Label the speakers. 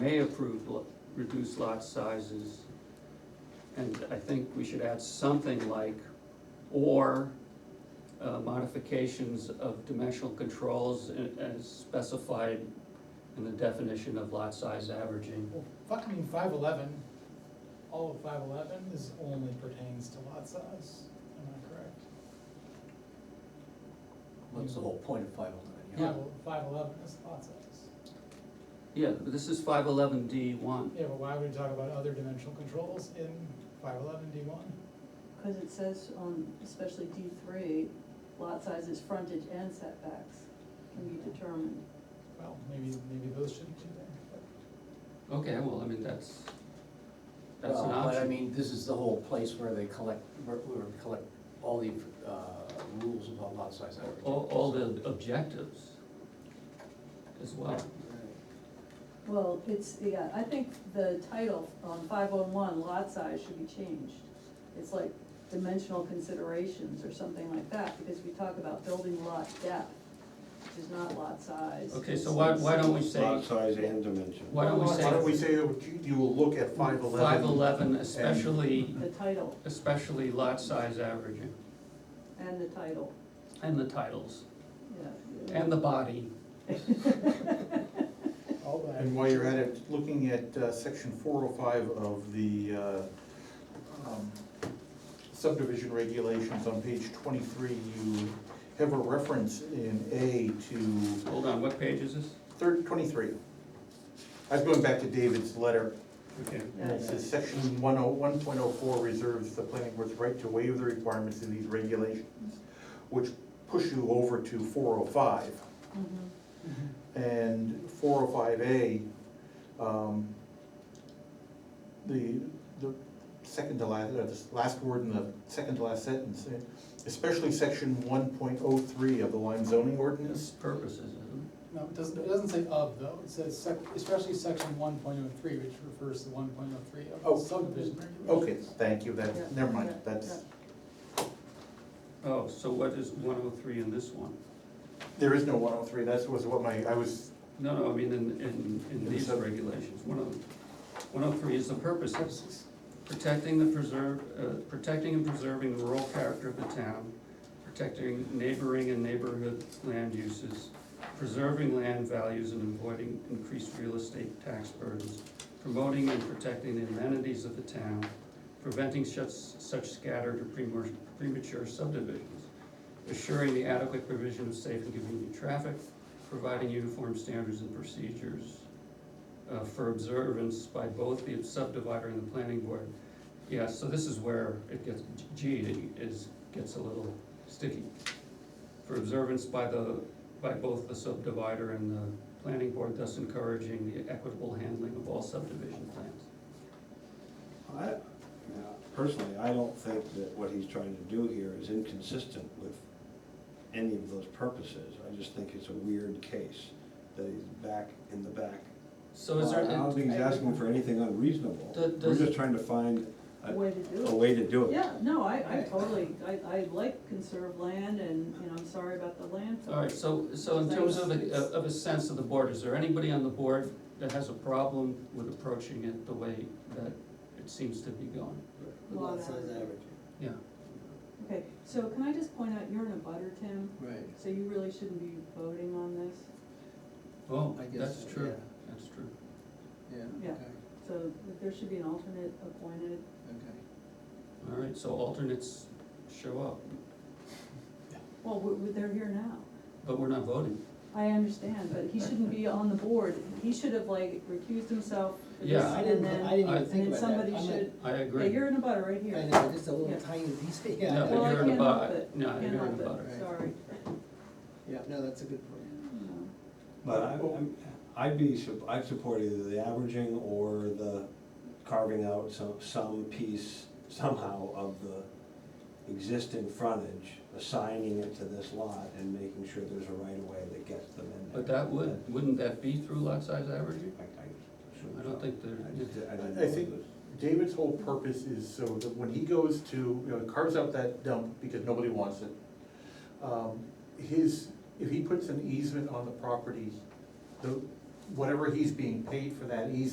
Speaker 1: may approve lo- reduced lot sizes. And I think we should add something like, or uh, modifications of dimensional controls a- as specified in the definition of lot size averaging.
Speaker 2: Well, fuck, I mean, five eleven, all of five eleven is only pertains to lot size, am I correct?
Speaker 3: That's the whole point of five oh nine,
Speaker 1: Yeah.
Speaker 2: Five, five eleven is lot size.
Speaker 1: Yeah, but this is five eleven D one.
Speaker 2: Yeah, but why would we talk about other dimensional controls in five eleven D one?
Speaker 4: Because it says on, especially D three, lot sizes, frontage and setbacks can be determined.
Speaker 2: Well, maybe, maybe those shouldn't be there,
Speaker 1: Okay, well, I mean, that's,
Speaker 3: yeah.
Speaker 1: that's an
Speaker 3: Well, But I
Speaker 1: option.
Speaker 3: mean, this is the whole place where they collect, where, where we collect all the, uh, rules about lot size average.
Speaker 1: All, all the objectives as well.
Speaker 4: Well, it's, yeah, I think the title on five oh one, lot size should be changed. It's like dimensional considerations or something like that, because we talk about building lot depth, which is not lot size.
Speaker 1: Okay, so why, why don't we say,
Speaker 5: Lot size and dimension.
Speaker 1: why don't we
Speaker 5: Why don't we
Speaker 1: say
Speaker 5: say that you- you will look at five eleven?
Speaker 1: five eleven, especially,
Speaker 4: The title
Speaker 1: especially lot size averaging,
Speaker 4: and the title,
Speaker 1: and the titles,
Speaker 4: yeah.
Speaker 1: and the body.
Speaker 2: but all that.
Speaker 5: And while you're at it, looking at uh, section four oh five of the uh, um, subdivision regulations on page twenty-three, you have a reference in A to
Speaker 1: Hold on, what page is this?
Speaker 5: third, twenty-three. I was going back to David's letter.
Speaker 1: Okay.
Speaker 5: And it says section one oh, one point oh four reserves the planning board's right to waive the requirements of these regulations, which push you over to four oh five.
Speaker 4: Mhm.
Speaker 5: And four oh five A, um, the, the second to last, or the last word in the second to last sentence, eh, especially section one point oh three of the Lime zoning
Speaker 1: It's
Speaker 5: ordinance.
Speaker 1: purposes, isn't
Speaker 2: No, it doesn't, it doesn't say of though, it says sec, especially section one point oh three, which refers to one point oh three
Speaker 5: Oh.
Speaker 2: of subdivision regulations.
Speaker 5: Okay, thank you, that,
Speaker 4: Yeah,
Speaker 5: never mind,
Speaker 4: yeah,
Speaker 5: that's,
Speaker 1: it? Oh, so what is one oh three in this one?
Speaker 5: there is no one oh three, that was what my, I was
Speaker 1: No, no, I mean, in, in, in these regulations, one oh, one oh three is the purposes.
Speaker 2: Purposes.
Speaker 1: Protecting the preserve, uh, protecting and preserving the rural character of the town, protecting neighboring and neighborhood land uses, preserving land values and avoiding increased real estate tax burdens, promoting and protecting the amenities of the town, preventing such, such scattered or premature- premature subdivisions, assuring the adequate provision of safe and convenient traffic, providing uniform standards and procedures uh, for observance by both the subdivider and the planning board. Yeah, so this is where it gets, G is, gets a little sticky. For observance by the, by both the subdivider and the planning board, thus encouraging the equitable handling of all subdivision plans.
Speaker 6: I, now, personally, I don't think that what he's trying to do here is inconsistent with any of those purposes. I just think it's a weird case that he's back in the back.
Speaker 1: So is there?
Speaker 6: I don't think he's asking for anything unreasonable.
Speaker 1: Does-
Speaker 6: We're
Speaker 1: does-
Speaker 6: just trying to find
Speaker 4: A
Speaker 6: a,
Speaker 4: way to do it.
Speaker 6: a way to do it.
Speaker 4: Yeah, no, I, I totally, I, I like conserve land and, you know, I'm sorry about the landfill.
Speaker 1: All right, so, so in terms of, a- of a sense of the board, is there anybody on the board that has a problem with approaching it the way that it seems to be going?
Speaker 4: Lot size
Speaker 1: Yeah,
Speaker 4: Okay, so can I just point out, you're in a butter, Tim,
Speaker 3: Right.
Speaker 4: so you really shouldn't be voting on this,
Speaker 1: well,
Speaker 3: Oh, I guess
Speaker 1: that's
Speaker 3: so,
Speaker 1: true,
Speaker 3: yeah.
Speaker 1: that's true.
Speaker 3: Yeah,
Speaker 4: Yeah. so there should be an alternate appointed.
Speaker 3: okay.
Speaker 1: All right, so alternates show up,
Speaker 4: Well, we- we- they're here now.
Speaker 1: but we're not voting.
Speaker 4: I understand, but he shouldn't be on the board. He should have like recused himself for this
Speaker 1: Yeah. I
Speaker 4: and then,
Speaker 1: I-
Speaker 4: and then somebody
Speaker 3: I'm
Speaker 4: should,
Speaker 1: I
Speaker 4: yeah,
Speaker 1: agree.
Speaker 4: you're in a butter right here.
Speaker 3: I know, just a
Speaker 4: Yeah.
Speaker 3: little tiny piece,
Speaker 1: No,
Speaker 3: yeah.
Speaker 1: but
Speaker 4: Well, I
Speaker 1: you're in a
Speaker 4: can't help
Speaker 1: bu-
Speaker 4: it.
Speaker 1: No,
Speaker 4: Can't
Speaker 1: you're in a
Speaker 4: help it,
Speaker 1: butter.
Speaker 3: Right.
Speaker 4: Sorry.
Speaker 3: Yeah, no, that's a good point.
Speaker 6: But I, I'm, I'd be, sup- I'd support either the averaging or the carving out some, some piece somehow of the existing frontage, assigning it to this lot and making sure there's a right of way that gets them in there.
Speaker 1: But that would, wouldn't that be through lot size averaging?
Speaker 6: I, I assume
Speaker 1: I don't
Speaker 6: so.
Speaker 1: think there-
Speaker 6: I just- I didn't
Speaker 5: I
Speaker 6: know
Speaker 5: think-
Speaker 6: this.
Speaker 5: David's whole purpose is so that when he goes to, you know, carves out that dump because nobody wants it. um, His, if he puts an easement on the property, the, whatever he's being paid for that easement